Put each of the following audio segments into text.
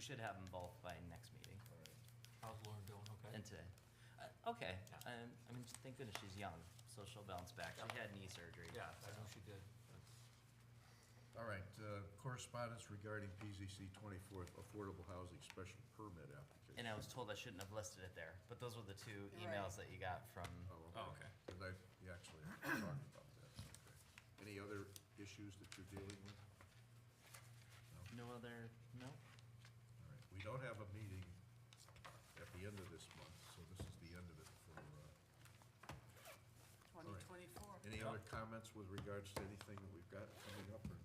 should have them both by next meeting How's Lauren doing, okay? and today. Uh, okay, Yeah. um, I mean, thank goodness she's young, so she'll bounce back. She Yeah. had knee surgery. Yeah, I know she did. All right, uh, correspondence regarding PZC twenty-fourth Affordable Housing Special Permit application. And I was told I shouldn't have listed it there, but those were the two Right. emails that you got from, Oh, okay. And I, you actually talked about that, okay. Any other issues that you're dealing with? no other, no? All right, we don't have a meeting at the end of this month, so this is the end of it for, uh, Twenty twenty-four. any other comments with regards to anything that we've got coming up or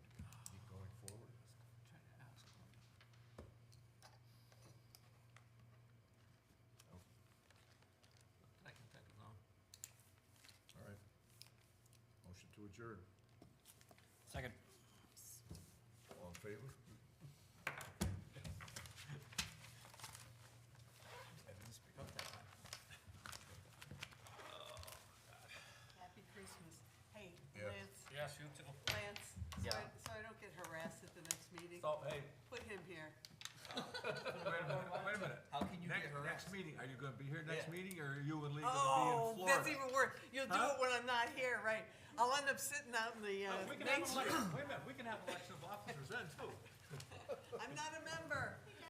keep going forward? I can think of none. All right. Motion to adjourn. Second. All in favor? Happy Christmas. Hey, Yeah. Lance, Yes, you too. Lance, so I, Yeah. so I don't get harassed at the next meeting, So, hey, put him here. wait a minute, wait a minute. How can you get Next, next harassed? meeting, are you gonna be here next Yeah. meeting, or are you and Lee gonna Oh, be in Florida? that's even worse. You'll do Huh? it when I'm not here, right? I'll end up sitting out in the, uh, Uh, We can have nature. election, wait a minute, we can have election of officers then too. I'm not a member.